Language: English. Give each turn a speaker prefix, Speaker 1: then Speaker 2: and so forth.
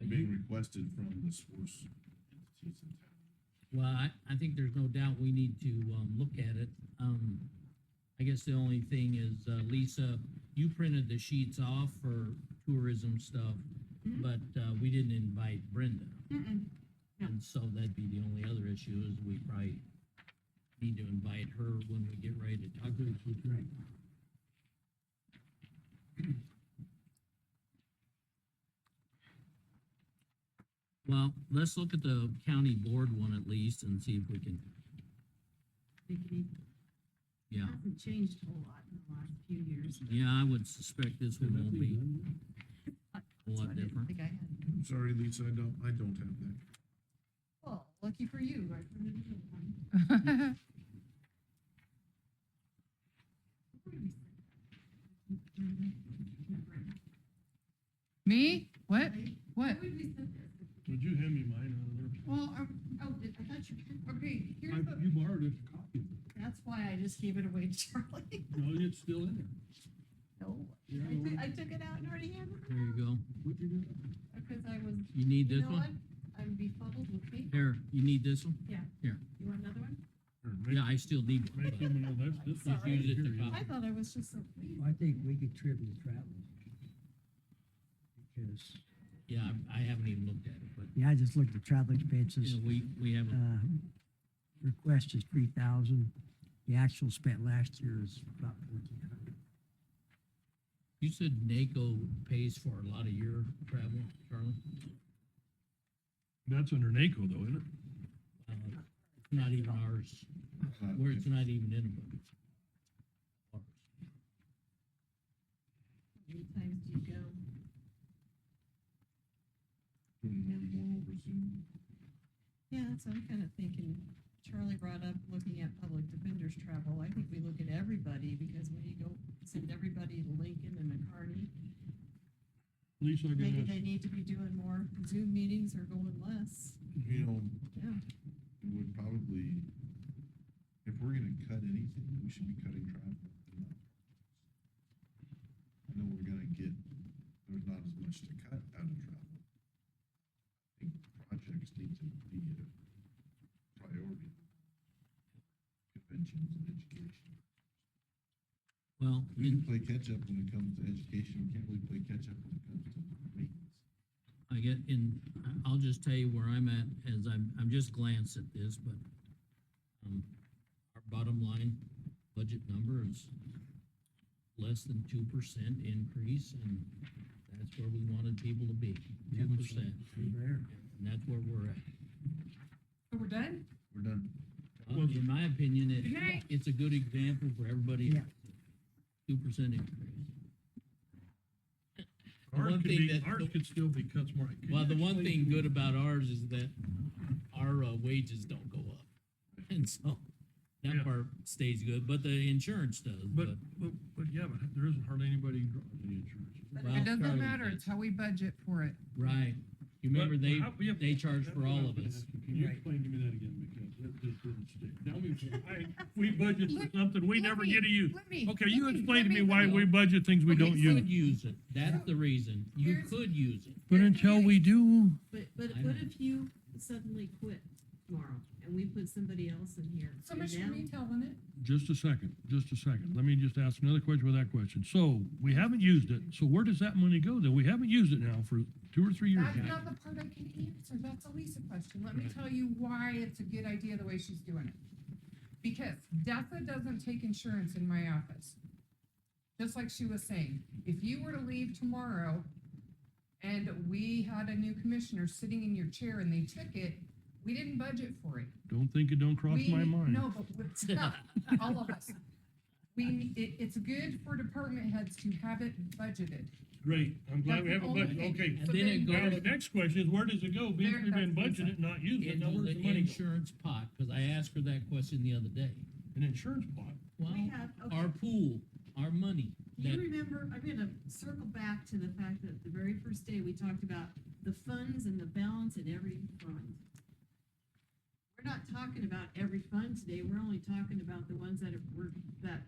Speaker 1: requested from the sports entities in town.
Speaker 2: Well, I, I think there's no doubt we need to, um, look at it. Um, I guess the only thing is, uh, Lisa, you printed the sheets off for tourism stuff,
Speaker 3: Mhm.
Speaker 2: but, uh, we didn't invite Brenda.
Speaker 3: Mm-mm. No.
Speaker 2: And so that'd be the only other issue is we probably need to invite her when we get ready to talk. Well, let's look at the county board one at least and see if we can,
Speaker 3: They can eat-
Speaker 2: yeah.
Speaker 3: Hasn't changed a whole lot in the last few years.
Speaker 2: Yeah, I would suspect this one won't be a
Speaker 3: so I
Speaker 2: lot
Speaker 3: didn't
Speaker 2: different.
Speaker 3: think I had.
Speaker 1: I'm sorry, Lisa, I don't, I don't have that.
Speaker 3: Well, lucky for you, I printed it out. Where did we send
Speaker 4: Me? What?
Speaker 3: that?
Speaker 4: What?
Speaker 3: Where did we send this?
Speaker 5: Would you hand me mine out
Speaker 3: Well, um, oh, did- I thought you, okay, here's
Speaker 5: of there? I-
Speaker 3: the,
Speaker 5: You borrowed it, a copy. of it.
Speaker 3: that's why I just gave it away to Charlie.
Speaker 5: No, it's still in there.
Speaker 3: No,
Speaker 5: You
Speaker 3: I took,
Speaker 5: know,
Speaker 3: I took it out and already handed it
Speaker 2: There you go.
Speaker 5: what you do?
Speaker 3: because I was,
Speaker 2: You need
Speaker 3: you
Speaker 2: this
Speaker 3: know what?
Speaker 2: one?
Speaker 3: I'm befuddled with me.
Speaker 2: Here, you need this one?
Speaker 3: You want another one?
Speaker 5: Or
Speaker 2: Yeah,
Speaker 5: make-
Speaker 2: I still need one.
Speaker 5: Make
Speaker 2: but-
Speaker 5: him an old, that's, that's.
Speaker 3: Sorry.
Speaker 2: Use it to
Speaker 3: I thought I was just so pleased.
Speaker 6: I think we could trip the travel. Because,
Speaker 2: Yeah, I- I haven't even looked at it, but,
Speaker 6: yeah, I just looked at travel
Speaker 2: you
Speaker 6: expenses.
Speaker 2: know, we, we haven't,
Speaker 6: Uh, Request is three thousand. The actual spent last year is about fourteen hundred.
Speaker 2: you said NACO pays for a lot of your travel, Charlie?
Speaker 5: That's under NACO though, isn't it?
Speaker 2: Uh, it's Not even ours,
Speaker 1: Uh,
Speaker 2: where it's not even in a book.
Speaker 3: How many times do you go?
Speaker 1: doing more and more over Zoom.
Speaker 3: Yeah, that's what I'm kind of thinking. Charlie brought up looking at public defenders travel. I think we look at everybody because when you go send everybody to Lincoln and McCarty,
Speaker 5: Lisa, I
Speaker 3: maybe
Speaker 5: can
Speaker 3: they
Speaker 5: ask,
Speaker 3: need to be doing more Zoom meetings or going less.
Speaker 1: You know,
Speaker 3: Yeah.
Speaker 1: it would probably, if we're gonna cut anything, we should be cutting travel. I know we're gonna get, there's not as much to cut out of travel. I think projects need to be a priority. Conventions and education.
Speaker 2: Well,
Speaker 1: We can
Speaker 2: in-
Speaker 1: play catch-up when it comes to education, we can't really play catch-up when it comes to maintenance.
Speaker 2: I get in, I- I'll just tell you where I'm at as I'm, I'm just glanced at this, but um, our bottom line budget number is less than two percent increase and that's where we wanted people to be, two percent.
Speaker 6: There.
Speaker 2: And that's where we're at.
Speaker 3: So we're done?
Speaker 1: We're done.
Speaker 2: Uh, In my opinion,
Speaker 3: Good
Speaker 2: it,
Speaker 3: night.
Speaker 2: it's a good example for everybody.
Speaker 6: Yeah.
Speaker 2: Two percent increase.
Speaker 5: ours
Speaker 2: one
Speaker 5: could
Speaker 2: thing
Speaker 5: be,
Speaker 2: that-
Speaker 5: ours could still be cuts more. Can
Speaker 2: Well,
Speaker 5: you
Speaker 2: the one
Speaker 5: explain
Speaker 2: thing
Speaker 5: to me-
Speaker 2: good about ours is that our uh, wages don't go up. And so
Speaker 5: Yeah.
Speaker 2: that part stays good, but the insurance does, but.
Speaker 5: But, but, but yeah, but there isn't hardly anybody drawing any insurance.
Speaker 2: well,
Speaker 4: It doesn't
Speaker 2: Charlie
Speaker 4: matter.
Speaker 2: did.
Speaker 4: It's how we budget for it.
Speaker 2: Right. You remember
Speaker 5: But
Speaker 2: they,
Speaker 5: how- yeah,
Speaker 2: they charge
Speaker 5: that's
Speaker 2: for
Speaker 5: what I
Speaker 2: all
Speaker 5: was
Speaker 2: of
Speaker 5: gonna
Speaker 2: us.
Speaker 5: ask you. Can you
Speaker 6: Right.
Speaker 5: explain to me that again, because that just didn't stick. Now we, I, we budget for
Speaker 4: Let-
Speaker 5: something we
Speaker 4: let
Speaker 5: never
Speaker 4: me-
Speaker 5: get to use.
Speaker 4: Let me.
Speaker 5: Okay,
Speaker 4: let
Speaker 5: you
Speaker 4: let
Speaker 5: explain to me
Speaker 4: let
Speaker 5: why we budget things we
Speaker 4: Okay,
Speaker 5: don't
Speaker 2: You
Speaker 5: use.
Speaker 2: could use it. That's the reason. You
Speaker 4: Here's-
Speaker 2: could use it.
Speaker 5: But until we do,
Speaker 3: But, but
Speaker 2: I
Speaker 3: what
Speaker 2: know.
Speaker 3: if you suddenly quit tomorrow and we put somebody else in here?
Speaker 4: So much for
Speaker 3: Now-
Speaker 4: me telling it.
Speaker 5: just a second, just a second. Let me just ask another question with that question. So we haven't used it. So where does that money go then? We haven't used it now for two or three years.
Speaker 4: That's
Speaker 5: now.
Speaker 4: not the part I can answer. That's a Lisa question. Let me
Speaker 2: Right.
Speaker 4: tell you why it's a good idea the way she's doing it. Because DESA doesn't take insurance in my office. Just like she was saying, if you were to leave tomorrow and we had a new commissioner sitting in your chair and they took it, we didn't budget for it.
Speaker 5: Don't think it don't cross
Speaker 4: We-
Speaker 5: my mind.
Speaker 4: No, but what's up? all of us. We, it, it's good for department heads to have it budgeted.
Speaker 5: Great, I'm glad we have a budget. Okay.
Speaker 2: And then it
Speaker 5: Now,
Speaker 2: goes
Speaker 5: the next question is where does it go? Because we've been budgeted, not used it. Now
Speaker 2: into
Speaker 5: where's
Speaker 2: the
Speaker 5: the money go?
Speaker 2: insurance pot, because I asked her that question the other day.
Speaker 5: An insurance pot.
Speaker 2: Well,
Speaker 3: We have, okay.
Speaker 2: our pool, our money,
Speaker 3: Do you
Speaker 2: that,
Speaker 3: remember, I'm gonna circle back to the fact that the very first day we talked about the funds and the balance in every fund. We're not talking about every fund today, we're only talking about the ones that are, were, that